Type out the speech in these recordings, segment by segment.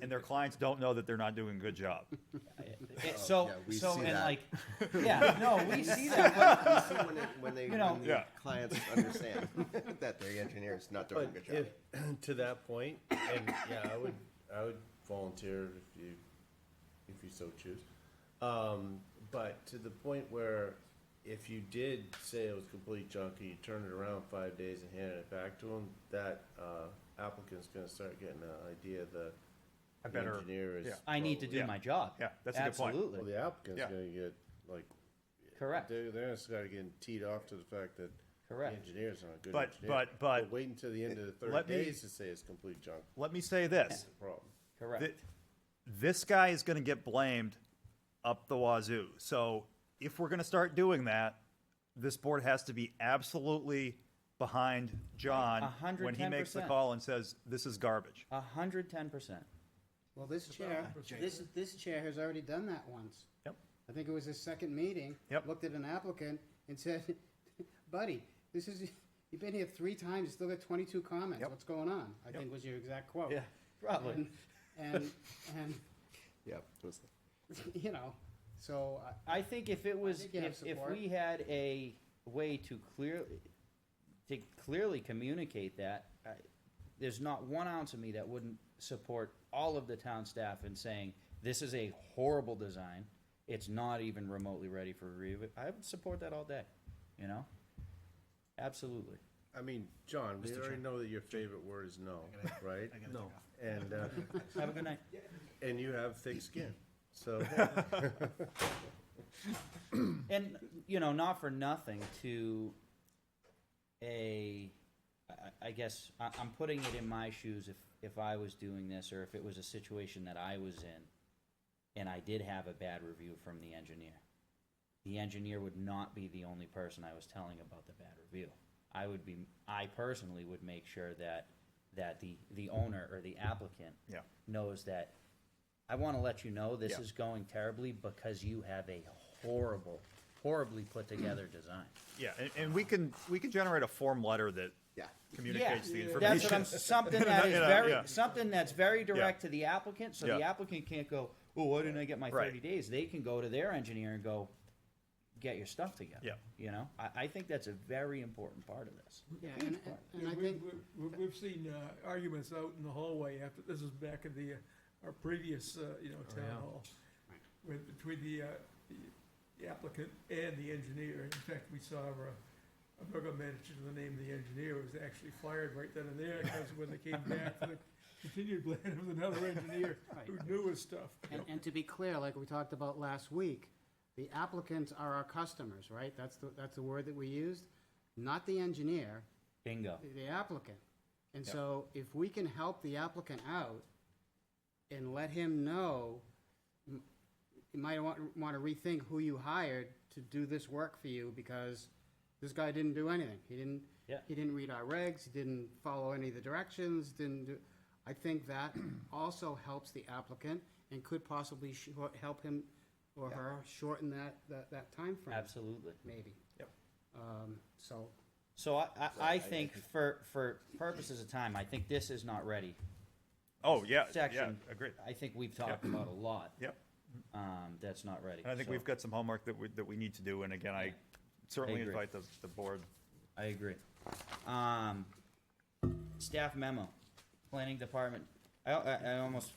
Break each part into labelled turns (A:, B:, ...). A: and their clients don't know that they're not doing a good job.
B: It-
A: Oh,
B: so
C: yeah, we
B: so
C: see
B: and
C: that.
B: like yeah no we see that but
C: You see when, it, when they,
B: You know-
C: when the
A: Yeah.
C: clients understand that their engineer is not doing a good
D: But
C: job.
D: if, to that point, and yeah, I would, I would volunteer if you, if you so choose. Um, but to the point where if you did say it was complete junk and you turned it around five days and handed it back to them, that, uh, applicant's gonna start getting an idea that
A: I
D: the
A: better,
D: engineer is.
A: yeah.
B: i need to
D: probably-
B: do
A: Yeah.
B: my job
A: Yeah, that's a good point.
B: absolutely
D: Well, the applicant's
A: Yeah.
D: gonna get, like,
B: correct
D: they're, they're gonna start getting teed off to the fact that the
B: Correct.
D: engineer's not a good
A: But-
D: engineer.
A: but- but-
D: Wait until the end of the
A: Let
D: thirty
A: me-
D: days to say it's complete junk,
A: let me say this.
D: problem.
B: correct
A: Th- This guy is gonna get blamed up the wazoo. So if we're gonna start doing that, this board has to be absolutely behind John when he makes the
B: 110%.
A: call and says, this is garbage.
B: A hundred ten percent
E: Well, this chair, this, this chair has already done that once.
A: Yep.
E: I think it was his second meeting.
A: Yep.
E: Looked at an applicant and said, buddy, this is, you've been here three times, you still got twenty-two comments,
A: Yep.
E: what's going on? I think was your exact quote.
B: yeah probably
E: And, and, and,
C: Yeah. it was-
E: you know, so, I-
B: I think if it was,
E: think you have
B: if, if
E: support.
B: we had a way to clearly, to clearly communicate that, I, there's not one ounce of me that wouldn't support all of the town staff in saying, this is a horrible design. It's not even remotely ready for review. I would support that all day, you know? Absolutely.
D: I mean, John, we already know that your favorite word is no, right? No. And, uh,
B: Have a good night.
D: and you have thick skin, so.
B: And, you know, not for nothing to a, I- I guess, I, I'm putting it in my shoes if, if I was doing this or if it was a situation that I was in and I did have a bad review from the engineer. The engineer would not be the only person I was telling about the bad review. I would be, I personally would make sure that, that the, the owner or the applicant
A: Yeah.
B: knows that I want to let you know this
A: Yeah.
B: is going terribly because you have a horrible, horribly put together design.
A: Yeah, and, and we can, we can generate a form letter that
C: Yeah.
A: communicates the information.
B: That's what I'm, something that is
A: You know,
B: very,
A: yeah.
B: something that's very direct to the applicant, so the
A: Yeah.
B: applicant can't go, oh, why didn't I get my
A: Right.
B: thirty days? They can go to their engineer and go, get your stuff together.
A: Yeah.
B: You know, I, I think that's a very important part of this.
E: yeah, and, and- and I
F: We-
E: think,
F: we- we- We've seen uh, arguments out in the hallway after, this is back in the, uh, our previous, uh, you know, town hall, with, between the, uh, the applicant and the engineer. In fact, we saw our, a program manager, the name of the engineer was actually fired right then and there, because when they came back, the continued blame it was another engineer who knew his stuff.
E: and, and to be clear, like we talked about last week, the applicants are our customers, right? That's the, that's the word that we used, not the engineer.
B: Bingo.
E: the- the applicant. And so if we can help the applicant out and let him know, m- you might want, want to rethink who you hired to do this work for you because this guy didn't do anything. He didn't,
B: Yeah.
E: he didn't read our regs, he didn't follow any of the directions, didn't do, I think that also helps the applicant and could possibly shor- help him or her shorten that, that, that timeframe.
B: Absolutely.
E: Maybe.
A: Yep.
E: Um, so
B: So I, I, I think for, for purposes of time, I think this is not ready.
A: Oh, yeah, yeah,
B: Section.
A: agreed.
B: I think we've talked about a lot.
A: Yep.
B: Um, that's not ready.
A: And I think
B: So
A: we've got some homework that we, that we need to do, and again, I
B: Yeah.
A: certainly
B: I agree.
A: invite the, the board.
B: I agree. Um, staff memo, planning department. I, I, I almost,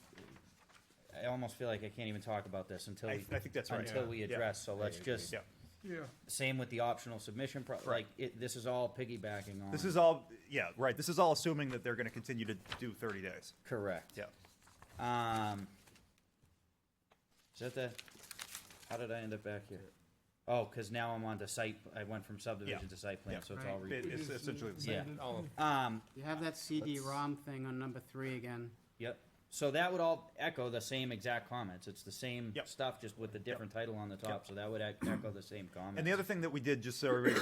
B: I almost feel like I can't even talk about this until
A: I-
B: we,
A: I think that's right.
B: until
A: Yeah.
B: we
A: Yeah.
B: address. So let's just
A: Yeah,
F: Yeah.
B: same with the optional submission. Pro- like it, this is all piggybacking on.
A: this is all, yeah, right, this is all assuming that they're gonna continue to do thirty days,
B: correct.
A: yeah.
B: Um, is that the? How did I end up back here? Oh, because now I'm on the site. I went from subdivision
A: Yeah.
B: to site plan,
A: Yeah.
B: so it's all.
A: It-
B: Re-
A: It's essentially the
B: yeah.
A: same.
B: Um,
E: You have that CD-ROM thing on number three again.
B: Yep. So that would all echo the same exact comments. It's the same
A: Yep.
B: stuff, just with the different title on the top. So that would ec- echo the same comments.
A: And the other thing that we did, just so everybody,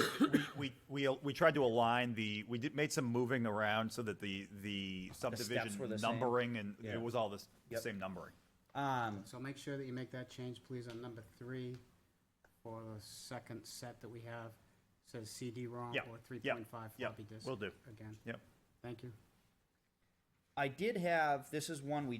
A: we, we, we, we tried to align the, we did, made some moving around so that the, the
B: were the
A: subdivision
B: same.
A: numbering and
B: Yeah.
A: it was all this, the
B: Yep.
A: same numbering.
B: um,
E: So make sure that you make that change, please, on number three for the second set that we have. Says CD-ROM
A: Yeah,
E: or
A: yeah,
E: 3.5
A: yeah,
E: floppy disk.
A: will do.
E: Again,
A: Yep.
E: thank you.
B: I did have this is one we